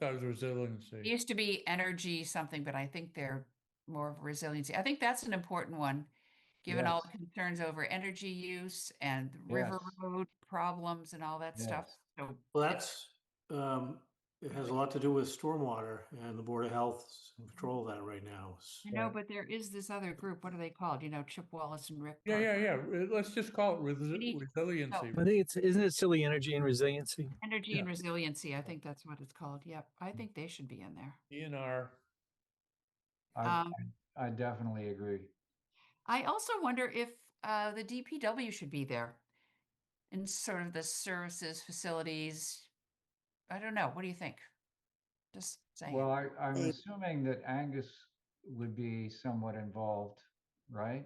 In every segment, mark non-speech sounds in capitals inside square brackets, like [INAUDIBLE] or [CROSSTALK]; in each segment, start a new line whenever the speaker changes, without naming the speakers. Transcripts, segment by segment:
thought it was resiliency.
Used to be energy something, but I think they're more of resiliency. I think that's an important one, given all the concerns over energy use and river
Yes.
road problems and all that stuff. So
Well, that's, um, it has a lot to do with stormwater and the Board of Health control that right now.
I know,
Right.
but there is this other group. What are they called? You know, Chip Wallace and Rick.
Yeah,
Park.
yeah, yeah. Re- Let's just call it resi-
need-
resiliency.
I think it's, isn't it silly energy and resiliency?
Energy
Yeah. Mm.
and resiliency. I think that's what it's called. Yep. I think they should be in there.
DNR.
I,
Um,
I definitely agree.
I also wonder if uh, the DPW should be there in sort of the services, facilities. I don't know. What do you think? Just saying.
Well, I, I'm assuming that Angus would be somewhat involved, right?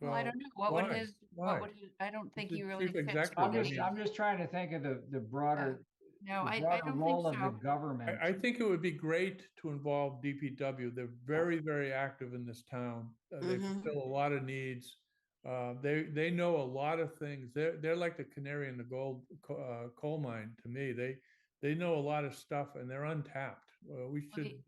Well, I
Well,
don't know. What would
why?
his, what
Why?
would his, I don't think
the
he really
chief
fits.
executive,
I'm
with
Yeah.
just,
the-
isn't
I'm just trying to think of the, the broader, the
Uh, No, I, I
broader
don't
role of
think
the
so.
government.
I, I think it would be great to involve DPW. They're
Oh.
very, very active in this town. Uh, They
Mm-hmm.
Mhm.
fulfill a lot of needs. Uh, they, they know a lot of things. They're, they're like the canary in the gold, co- uh, coal mine to me. They, they know a lot of stuff and they're untapped. Uh, we
Okay,
should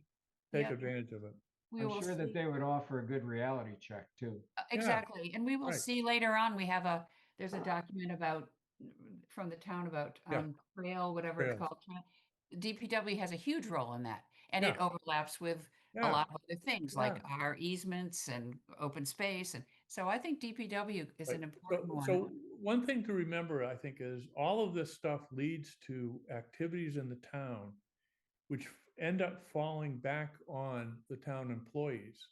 take
yeah.
advantage of it.
We
I'm
will
sure that
see.
they would offer a good reality check too.
Uh, Exactly. And we will
right.
see later on, we have a, there's a document about, mm, from the town about,
Yeah.
um, trail, whatever
Trails.
it's called. tra- DPW has a huge role in that and it
Yeah.
overlaps with a
Yeah.
lot of other things like our easements and open space. And so I think DPW is
Right.
an
So,
important one.
so one thing to remember, I think, is all of this stuff leads to activities in the town, which f- end up falling back on the town employees.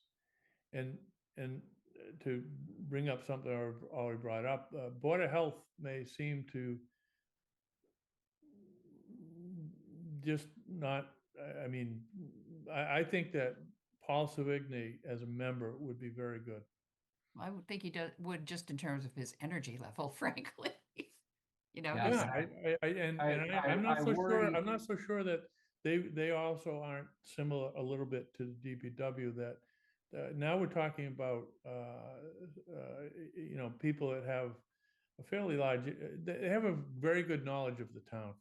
And, and uh, to bring up something I've already brought up, uh, Board of Health may seem to just not, I, I mean, I, I think that Paul Savigny as a member would be very good.
I would think he does, would just in terms of his energy level, [LAUGHS] frankly. You know,
Yeah.
he's-
Yeah, I, I, I, and,
I-
and I,
I-
I'm not
I
so sure,
worry-
I'm not so sure that they, they also aren't similar a little bit to the DPW that, uh, now we're talking about, uh, uh, y- you know, people that have a fairly large, uh, they they have a very good knowledge of the town.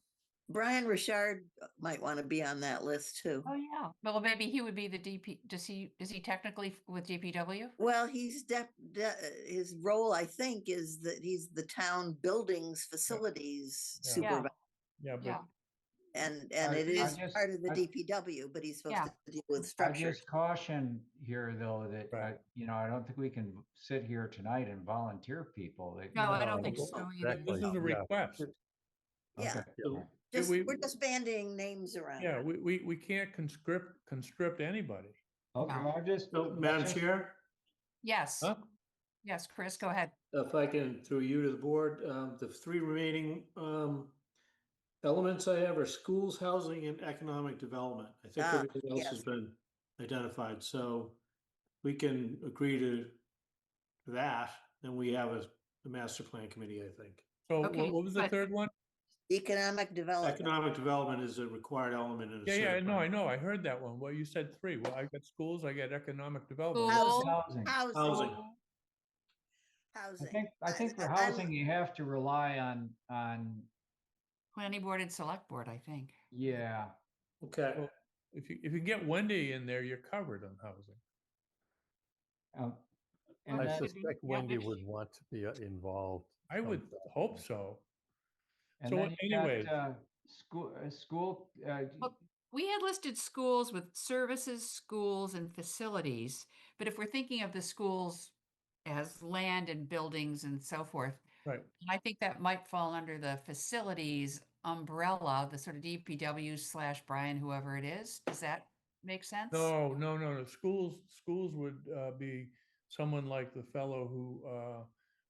Brian Richard uh, might want to be on that list too.
oh yeah, well, maybe he would be the DP, does he, is he technically f- with DPW?
Well, he's dep, de- uh, his role, I think, is that he's the town buildings facilities
Yeah.
Yeah.
supervisor.
Yeah,
Yeah.
but
And, and
I-
it
I
is
just-
part of the
I-
DPW, but he's
Yeah.
supposed to deal with
I
structures.
just caution here though that,
Right.
I- you know, I don't think we can sit here tonight and volunteer people. that-
No, I don't think
No,
so either.
exactly.
this is a
Yeah.
request.
Yeah,
Okay.
Yeah.
just,
we-
we're just banding names around.
Yeah, we, we, we can't conscript, constrict anybody.
Okay, I'm just.
Oh,
So, Madam
that's just-
Chair,
Yes,
Huh?
yes, Chris, go ahead.
if I can, through you to the board, um, the three remaining, um, elements I have are schools, housing, and economic development. I think
Ah,
everything else has
yes.
been identified, so we can agree to that, then we have a, a master plan committee, I think.
So what
Okay,
what was the
but-
third one?
Economic development.
Economic development is a required element in a.
Oh, Yeah, yeah, I
certain
know, I
plan.
know. I heard that one. Well, you said three. Well, I got schools, I got economic development.
Cool.
Housing.
Housing.
Housing,
I
housing.
think, I think for
I'm-
housing, you have to rely on, on,
Planning board and select board, I think.
yeah.
Okay,
If you, if you get Wendy in there, you're covered on housing.
um, and
I
I
then-
sus-
suspect
yeah,
Wendy
maybe
would
she-
want to be uh, involved.
I would
sometime.
hope so.
and
so
then you got,
anyways.
uh, School, uh, school, uh,
Well, We had listed schools with services, schools and facilities, but if we're thinking of the schools as land and buildings and so forth.
Right.
I think that might fall under the facilities umbrella, the sort of DPW slash Brian, whoever it is. Does that make sense?
No, no, no, no. Schools, schools would uh, be someone like the fellow who uh,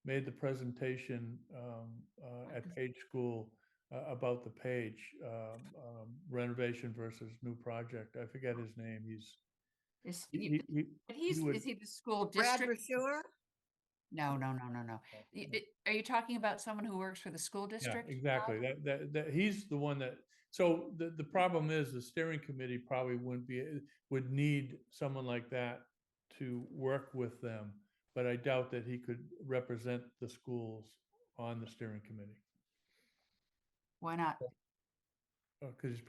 made the presentation um, uh, at Page School uh, about the Page um, um, renovation versus new project. I forget his name. He's,
Is,
he- he-
he-
he-
but he's,
would-
is he the school
Brad
district?
Rushure?
No, no, no, no, no. Y- d- Are you talking about someone who works for the school
yeah,
district?
exactly. That, that, that, he's the one that, so the, the problem is the steering committee probably wouldn't be, would need someone like that to work with them, but I doubt that he could represent the schools on the steering committee.
Why not?
Because uh, he's